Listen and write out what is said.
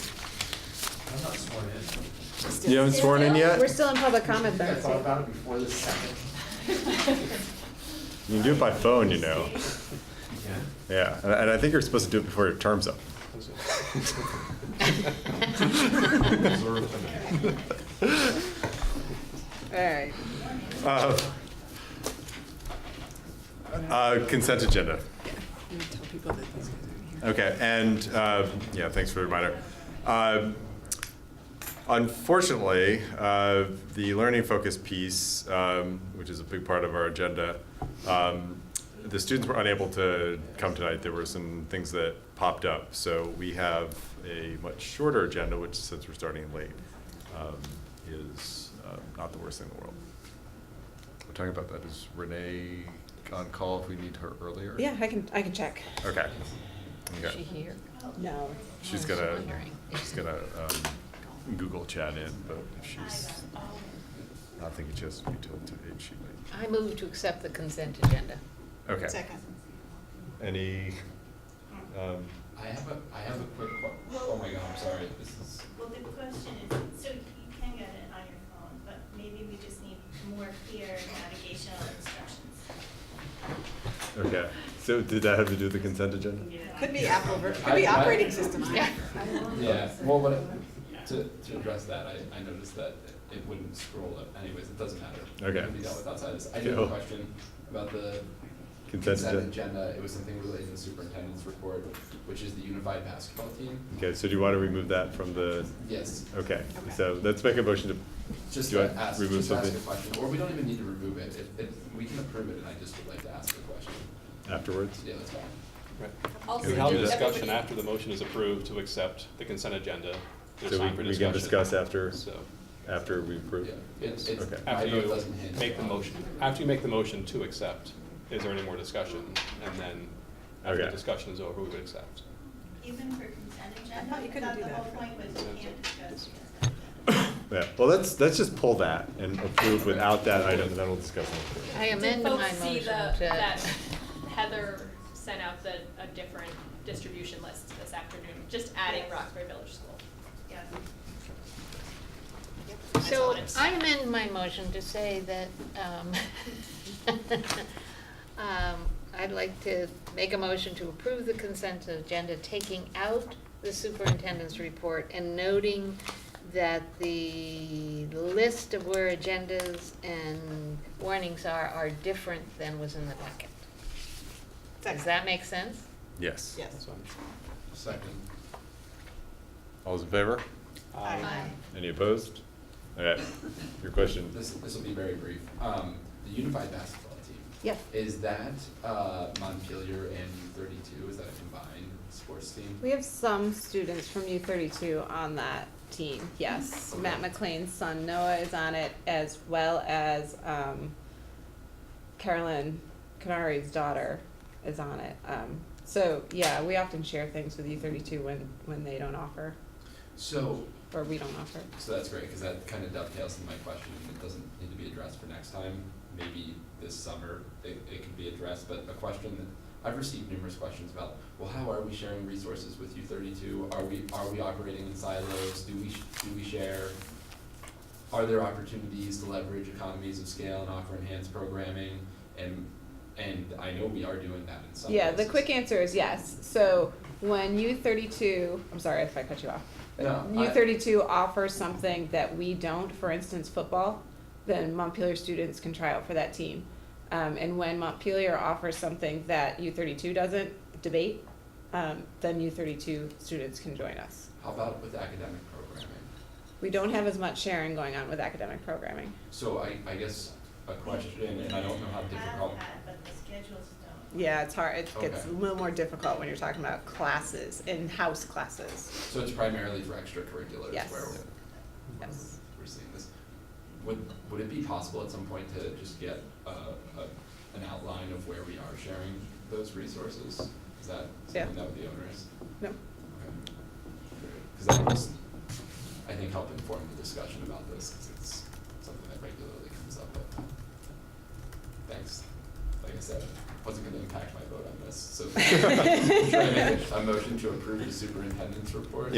I'm not sworn in. You haven't sworn in yet? We're still in public comment, I thought though. about it before this second. You can do it by phone, you know. Yeah. Yeah, and, and I think you're supposed to do it before your term's up. Oh All right. Uh, uh, consent agenda. Okay, and uh, yeah, thanks for the reminder. Uh, unfortunately, uh, the learning focus piece, um, which is a big part of our agenda, um, the students were unable to come tonight. There were some things that popped up, so we have a much shorter agenda, which since we're starting late, um, is uh, not the worst thing in the world. We're talking about that. Is Renee on call if we need her earlier? Yeah, I can, I can check. Okay. Is Okay. she here? No. She's I was gonna, wondering. she's gonna um, Google chat in, but if she's, I think it just be till today, she might. I move to accept the consent agenda. Okay. Any, um, I have a, I have a quick que- oh my god, I'm sorry, this is, Well, the question is, so you can get it on your phone, but maybe we just need more clear navigational instructions. okay, so did that have to do with the consent agenda? Could be Apple, ver- could be I- I- operating systems. Yeah. yeah, well, but to, to address that, I, I noticed that it wouldn't scroll up, anyways, it doesn't matter. Okay. It can be dealt with outside this, I do have Cool. a question about the Consent consent agenda. agenda, it was something related to the superintendent's report, which is the unified basketball team, Okay, so do you want to remove that from the, yes, okay, so let's make a motion to, just Oh, Do to I ask, remove just ask a something? question, or we don't even need to remove it, if, if, we can approve it, and I just would like to ask a question, afterwards? yeah, that's fine. Can We we have do a that? discussion after the motion is approved to accept the consent agenda. There's So we- time for we can discussion. discuss after, So, after we approve? Yeah, it's, it's, Okay. I after know it you doesn't hinge make the on- motion, after you make the motion to accept, is there any more discussion? And then, after the Okay. discussion is over, we would accept. Even for consent agenda, thought you I couldn't thought do the that whole for- point was you can't discuss. Yeah, well, let's, let's just pull that and approve without that item, and then we'll discuss it. I amend my motion Did folks see the, that to, Heather sent out the, a different distribution list this afternoon, just adding Roxbury Village School? Yeah. so Excellent. I amend my motion to say that, um, um, I'd like to make a motion to approve the consent agenda, taking out the superintendent's report and noting that the list of where agendas and warnings are, are different than was in the packet. Does that make sense? Yes. Yes. So, Second. All those in favor? um, Any opposed? All right, your question. This, this will be very brief. Um, the unified basketball team. Yep. Is that, uh, Montpelier and U thirty-two, is that a combined sports team? We have some students from U thirty-two on that team, yes. Matt McLean's son Noah is on it, as well as, um, Carolyn Canary's daughter is on it. Um, so, yeah, we often share things with U thirty-two when, when they don't offer, So, or we don't offer. so that's great, cause that kinda dovetails into my question, and it doesn't need to be addressed for next time. Maybe this summer, it, it could be addressed, but a question that, I've received numerous questions about, well, how are we sharing resources with U thirty-two? Are we, are we operating in silos? Do we, sh- do we share? are there opportunities to leverage economies of scale and offer enhanced programming? And, and I know we are doing that in some Yeah, places. the quick answer is yes. So when U thirty-two, I'm sorry if I cut you off. No, U I- thirty-two offers something that we don't, for instance, football, then Montpelier students can try out for that team. Um, and when Montpelier offers something that U thirty-two doesn't, debate, um, then U thirty-two students can join us. How about with academic programming? We don't have as much sharing going on with academic programming. So I, I guess a question, and I don't know how Have difficult, that, but the schedules don't. Yeah, it's hard, it gets a Okay. little more difficult when you're talking about classes, in-house classes, so it's primarily for extracurriculars Yes. where yes. we're seeing this. Would, would it be possible at some point to just get a, a, an outline of where we are sharing those resources? Is that Yeah. something that would be onerous? No. Because that was, I think, help inform the discussion about this, because it's something that regularly comes up, but thanks. Like I said, wasn't gonna impact my vote on this, so. Should I make a- a motion to approve the superintendent's report?